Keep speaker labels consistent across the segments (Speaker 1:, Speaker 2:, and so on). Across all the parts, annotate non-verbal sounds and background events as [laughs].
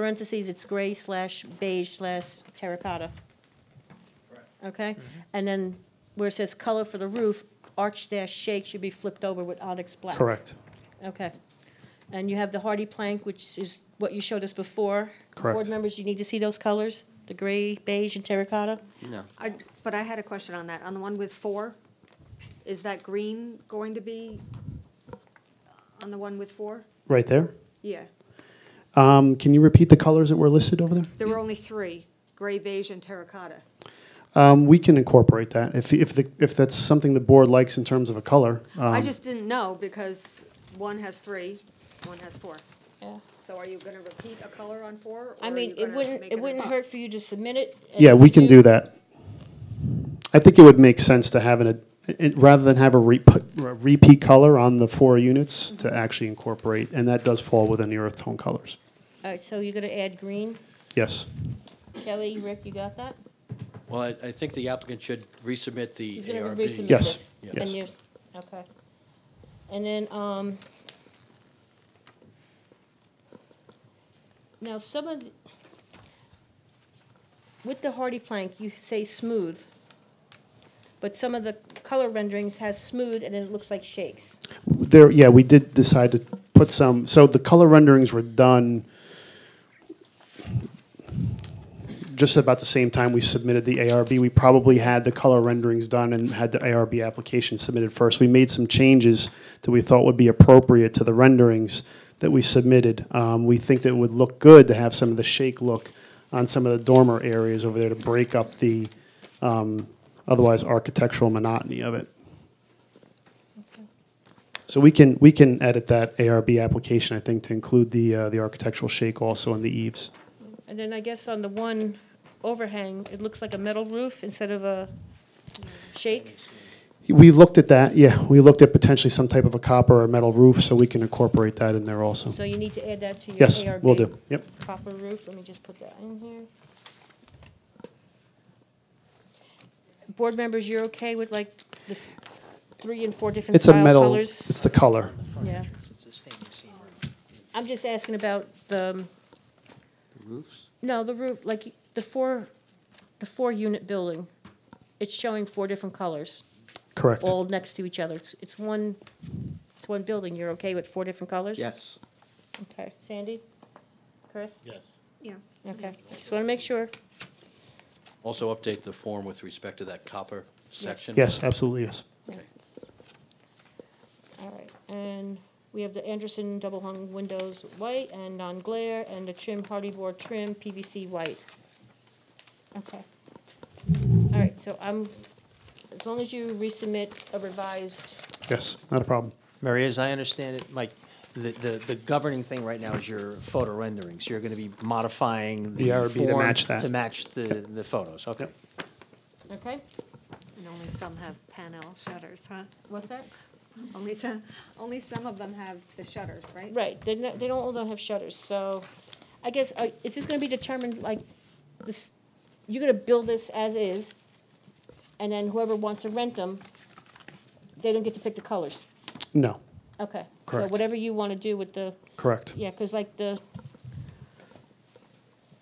Speaker 1: parentheses, it's gray slash beige slash terracotta. Okay? And then where it says color for the roof, arch dash shake should be flipped over with onyx black.
Speaker 2: Correct,
Speaker 1: Okay. And you have the hardy plank, which is what you showed us before.
Speaker 2: Correct.
Speaker 1: Board members, you need to see those colors, the gray, beige, and terracotta?
Speaker 3: No.
Speaker 4: I- But I had a question on that, on the one with four, is that green going to be on the one with four?
Speaker 2: right there.
Speaker 4: Yeah,
Speaker 2: Um, Can you repeat the colors that were listed over there?
Speaker 4: there were only three, gray, beige, and terracotta.
Speaker 2: Um, We can incorporate that, if, if, the- if that's something the board likes in terms of a color. uh,
Speaker 4: I
Speaker 1: Um,
Speaker 4: just didn't know because one has three, one has four.
Speaker 1: Yeah.
Speaker 4: So are you gonna repeat a color on four? or
Speaker 1: I
Speaker 4: are
Speaker 1: mean,
Speaker 4: you
Speaker 1: it
Speaker 4: gonna
Speaker 1: wouldn't,
Speaker 4: make
Speaker 1: it
Speaker 4: an
Speaker 1: wouldn't
Speaker 4: amendment?
Speaker 1: hurt for you to submit it. and
Speaker 2: Yeah,
Speaker 1: if
Speaker 2: we
Speaker 1: you
Speaker 2: can do that. I think it would make sense to have an, it- rather than have a re- put- a repeat color on the four units, to actually incorporate, and that does fall within the earth tone colors.
Speaker 1: All right, so you're gonna add green.
Speaker 2: Yes,
Speaker 1: Kelly, Rick, you got that?
Speaker 3: Well, I, I think the applicant should resubmit the
Speaker 1: He's gonna resubmit
Speaker 3: ARB.
Speaker 2: Yes,
Speaker 1: this.
Speaker 3: yes.
Speaker 1: And you- Okay. And then, um, now some of, the- with the hardy plank, you say smooth, but some of the color renderings has smooth and then it looks like shakes.
Speaker 2: there, yeah, we did decide to put some, so the color renderings were done just about the same time we submitted the ARB. We probably had the color renderings done and had the ARB application submitted first. We made some changes that we thought would be appropriate to the renderings that we submitted. Um, we think that it would look good to have some of the shake look on some of the dormer areas over there to break up the um, otherwise architectural monotony of it. So we can, we can edit that ARB application, I think, to include the, uh, the architectural shake also in the eaves.
Speaker 1: And then I guess on the one overhang, it looks like a metal roof instead of a shake.
Speaker 2: We looked at that, yeah, we looked at potentially some type of a copper or metal roof, so we can incorporate that in there also.
Speaker 1: So you need to add that to your
Speaker 2: Mm. Yes,
Speaker 1: ARB.
Speaker 2: will do, yep.
Speaker 1: copper roof, let me just put that in here. Board members, you're okay with like the three and four different
Speaker 2: It's a
Speaker 1: style
Speaker 2: metal,
Speaker 1: colors?
Speaker 2: it's the color.
Speaker 1: Yeah,
Speaker 5: It's a stainless steel roof.
Speaker 1: I'm just asking about the, um,
Speaker 3: Roofs?
Speaker 1: no, the roof, like the four, the four-unit building. It's showing four different colors,
Speaker 2: Correct,
Speaker 1: all next to each other. It's- It's one, it's one building, you're okay with four different colors?
Speaker 3: Yes.
Speaker 1: Okay, Sandy? Chris?
Speaker 6: Yes.
Speaker 4: Yeah.
Speaker 1: Okay, just want to make sure.
Speaker 3: Also update the form with respect to that copper section.
Speaker 2: yes, absolutely, yes.
Speaker 3: Okay.
Speaker 1: All right, and we have the Anderson double hung windows white and non-glare, and the trim hardy board trim PVC white. Okay. All right, so I'm, as long as you resubmit a revised,
Speaker 2: Yes, not a problem.
Speaker 5: Mary, as I understand it, Mike, the, the, the governing thing right now is your photo renderings. You're gonna be modifying the
Speaker 2: The ARB to
Speaker 5: form
Speaker 2: match that.
Speaker 5: To match the, the photos, okay.
Speaker 2: Yep.
Speaker 1: okay,
Speaker 4: And only some have panel shutters, huh?
Speaker 1: what's that?
Speaker 4: [laughs] Only some, only some of them have the shutters, right?
Speaker 1: Right, they not, they don't, all don't have shutters, so, I guess, uh, is this gonna be determined, like, this, you're gonna build this as is, and then whoever wants to rent them, they don't get to pick the colors?
Speaker 2: No,
Speaker 1: Okay, so
Speaker 2: Correct.
Speaker 1: whatever you want to do with the,
Speaker 2: correct.
Speaker 1: yeah, because like the,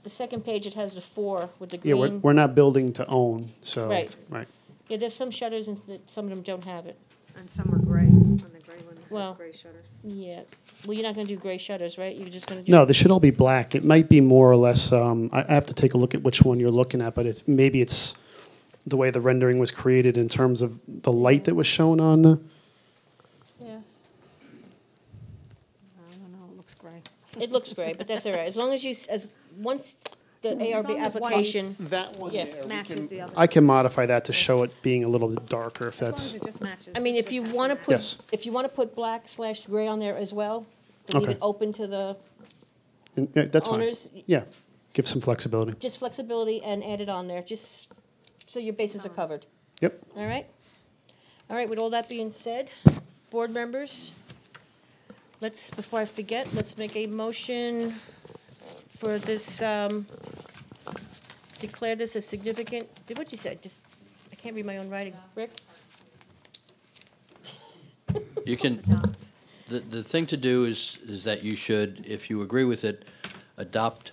Speaker 1: the second page, it has the four with the
Speaker 2: Yeah, we're,
Speaker 1: green.
Speaker 2: we're not building to own, so,
Speaker 1: Right.
Speaker 2: right,
Speaker 1: Yeah, there's some shutters and s- some of them don't have it.
Speaker 4: And some are gray, on the gray one that
Speaker 1: Well-
Speaker 4: has gray shutters.
Speaker 1: Yeah, well, you're not going to do gray shutters, right? You're just going to do.
Speaker 2: No, they should all be black. It might be more or less, um, I, I have to take a look at which one you're looking at, but it's, maybe it's the way the rendering was created in terms of the light that was shown on the,
Speaker 1: Yeah,
Speaker 4: I don't know, it looks gray.
Speaker 1: it looks gray, but that's all right, as long as you, s- as, once the
Speaker 4: long
Speaker 1: ARB
Speaker 4: as white-
Speaker 1: application,
Speaker 2: That one
Speaker 1: Yeah.
Speaker 2: there. we
Speaker 4: Matches
Speaker 2: can-
Speaker 4: the other.
Speaker 2: I can modify that to show it being a little bit darker if
Speaker 4: As
Speaker 2: that's,
Speaker 4: long as it just matches.
Speaker 1: I mean,
Speaker 4: it's
Speaker 1: if
Speaker 4: just
Speaker 1: you
Speaker 4: has
Speaker 1: want to
Speaker 4: match.
Speaker 2: Yes.
Speaker 1: put, if you want to put black slash gray on there as well, to leave
Speaker 2: Okay.
Speaker 1: it open to the
Speaker 2: and, yeah, that's fine.
Speaker 1: owners,
Speaker 2: Yeah, give some flexibility.
Speaker 1: just flexibility and add it on there, just so your bases are covered.
Speaker 2: Yep,
Speaker 1: All right? All right, with all that being said, board members, let's, before I forget, let's make a motion for this, um, declare this a significant, did what you said, just, I can't read my own writing. Rick?
Speaker 3: You can,
Speaker 4: Adopt.
Speaker 3: the, the thing to do is, is that you should, if you agree with it, adopt